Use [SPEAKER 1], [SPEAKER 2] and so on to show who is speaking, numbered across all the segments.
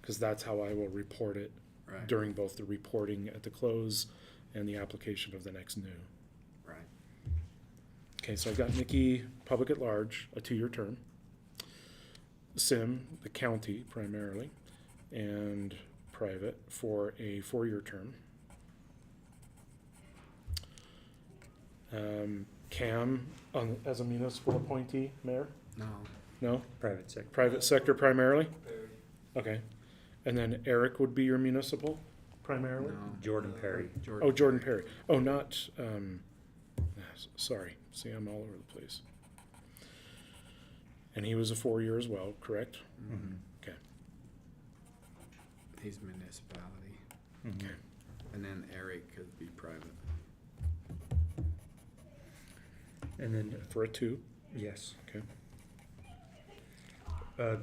[SPEAKER 1] because that's how I will report it
[SPEAKER 2] Right.
[SPEAKER 1] during both the reporting at the close and the application of the next new.
[SPEAKER 2] Right.
[SPEAKER 1] Okay, so I've got Nikki, public at large, a two-year term. Sim, the county primarily, and private for a four-year term. Um, Cam, on, as a municipal appointee, mayor?
[SPEAKER 2] No.
[SPEAKER 1] No?
[SPEAKER 3] Private sector.
[SPEAKER 1] Private sector primarily? Okay. And then Eric would be your municipal primarily?
[SPEAKER 2] No.
[SPEAKER 3] Jordan Perry.
[SPEAKER 1] Oh, Jordan Perry. Oh, not, um, ah, s- sorry. See, I'm all over the place. And he was a four-year as well, correct?
[SPEAKER 3] mm-hmm.
[SPEAKER 1] Okay.
[SPEAKER 2] Mm-hmm. He's municipality.
[SPEAKER 3] Mm-hmm.
[SPEAKER 1] Okay.
[SPEAKER 2] And then Eric could be private.
[SPEAKER 3] And then,
[SPEAKER 1] For a two,
[SPEAKER 3] yes,
[SPEAKER 1] okay.
[SPEAKER 3] uh,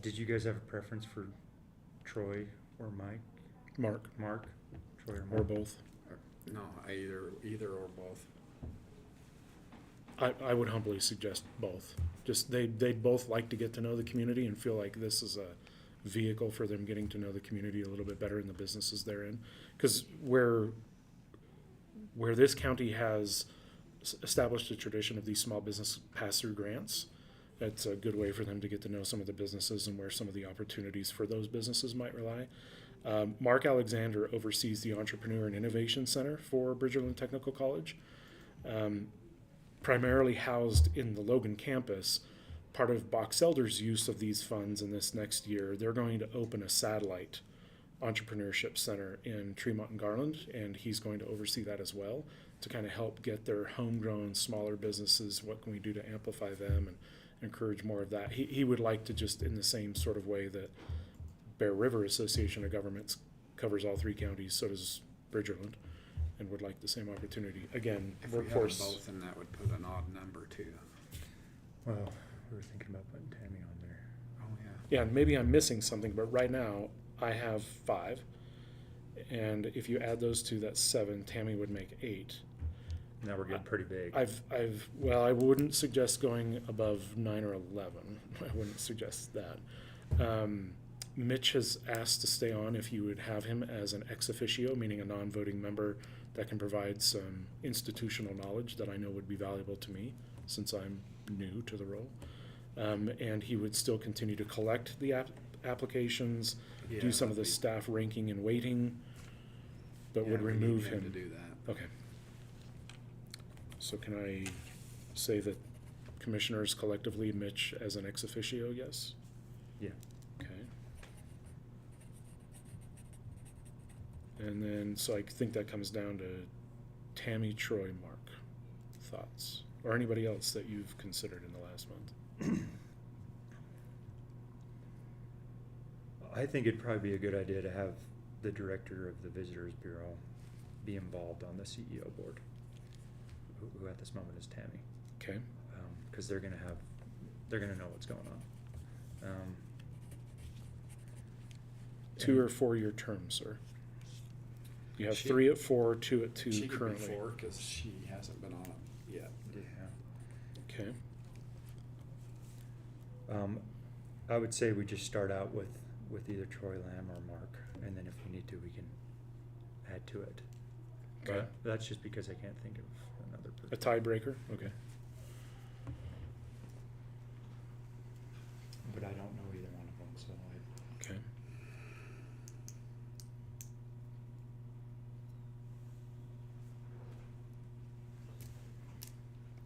[SPEAKER 3] did you guys have a preference for Troy or Mike,
[SPEAKER 1] Mark,
[SPEAKER 3] Mark? Troy or
[SPEAKER 1] or
[SPEAKER 3] Mark?
[SPEAKER 1] both.
[SPEAKER 2] No, I either, either or both.
[SPEAKER 1] I, I would humbly suggest both. Just, they, they'd both like to get to know the community and feel like this is a vehicle for them getting to know the community a little bit better and the businesses they're in. Because where, where this county has s- established a tradition of these small business pass-through grants, that's a good way for them to get to know some of the businesses and where some of the opportunities for those businesses might rely. Um, Mark Alexander oversees the Entrepreneur and Innovation Center for Bridgerland Technical College. Um, primarily housed in the Logan campus. Part of Box Elder's use of these funds in this next year, they're going to open a satellite entrepreneurship center in Tremont and Garland, and he's going to oversee that as well to kind of help get their homegrown smaller businesses. What can we do to amplify them and encourage more of that? He, he would like to just, in the same sort of way that Bear River Association of Governments covers all three counties, so does Bridgerland, and would like the same opportunity. Again,
[SPEAKER 2] If we had
[SPEAKER 1] workforce.
[SPEAKER 2] both, then that would put an odd number too.
[SPEAKER 3] Well, we were thinking about putting Tammy on there.
[SPEAKER 2] Oh, yeah.
[SPEAKER 1] Yeah, and maybe I'm missing something, but right now I have five. And if you add those two, that's seven. Tammy would make eight.
[SPEAKER 3] Now we're getting pretty big.
[SPEAKER 1] I've, I've, well, I wouldn't suggest going above nine or 11. I wouldn't suggest that. Um, Mitch has asked to stay on if you would have him as an ex officio, meaning a non voting member that can provide some institutional knowledge that I know would be valuable to me since I'm new to the role. Um, and he would still continue to collect the app- applications, do
[SPEAKER 2] Yeah,
[SPEAKER 1] some of the
[SPEAKER 2] that'd be-
[SPEAKER 1] staff ranking and waiting, but
[SPEAKER 2] yeah,
[SPEAKER 1] would
[SPEAKER 2] we need
[SPEAKER 1] remove
[SPEAKER 2] To do that.
[SPEAKER 1] Okay. So can I say that commissioners collectively, Mitch as an ex officio, yes?
[SPEAKER 3] Yeah.
[SPEAKER 1] Okay. And then, so I think that comes down to Tammy, Troy, Mark, thoughts, or anybody else that you've considered in the last month?
[SPEAKER 3] I think it'd probably be a good idea to have the director of the Visitors Bureau be involved on the CEO board, who, who at this moment is Tammy.
[SPEAKER 1] Okay,
[SPEAKER 3] because they're gonna have, they're gonna know what's going on. Um,
[SPEAKER 1] two
[SPEAKER 3] and-
[SPEAKER 1] or four-year terms, sir? You have
[SPEAKER 2] She-
[SPEAKER 1] three at four, two at two
[SPEAKER 2] She could be
[SPEAKER 1] currently.
[SPEAKER 2] four, cause she hasn't been on it yet.
[SPEAKER 3] Yeah.
[SPEAKER 1] Okay,
[SPEAKER 3] Um, I would say we just start out with, with either Troy Lamb or Mark, and then if we need to, we can add to it.
[SPEAKER 1] Okay.
[SPEAKER 3] But That's just because I can't think of another
[SPEAKER 1] a
[SPEAKER 3] person.
[SPEAKER 1] tiebreaker, okay.
[SPEAKER 3] But I don't know either one of them, so I.
[SPEAKER 1] Okay.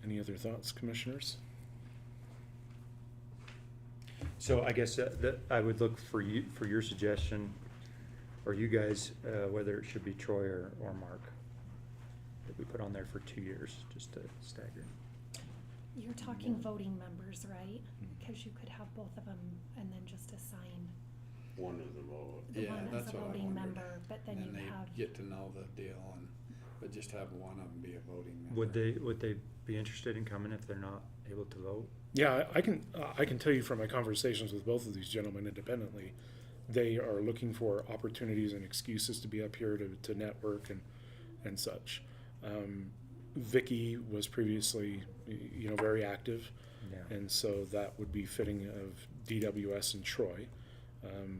[SPEAKER 1] Any other thoughts, commissioners?
[SPEAKER 3] So I guess uh, that, I would look for you, for your suggestion, or you guys, uh, whether it should be Troy or, or Mark. That we put on there for two years, just to stagger.
[SPEAKER 4] You're talking voting members, right? Because you could have both of them and then just assign
[SPEAKER 5] one of them all.
[SPEAKER 4] the
[SPEAKER 2] Yeah,
[SPEAKER 4] one as
[SPEAKER 2] that's
[SPEAKER 4] a
[SPEAKER 2] what I
[SPEAKER 4] voting
[SPEAKER 2] wondered.
[SPEAKER 4] member, but then
[SPEAKER 2] And
[SPEAKER 4] you
[SPEAKER 2] they
[SPEAKER 4] have,
[SPEAKER 2] Get to know the deal and, but just have one of them be a voting member.
[SPEAKER 3] Would they, would they be interested in coming if they're not able to vote?
[SPEAKER 1] Yeah, I I can, uh, I can tell you from my conversations with both of these gentlemen independently, they are looking for opportunities and excuses to be up here to, to network and, and such. Um, Vicky was previously, y- you know, very active.
[SPEAKER 3] Yeah.
[SPEAKER 1] And so that would be fitting of DWS and Troy. Um,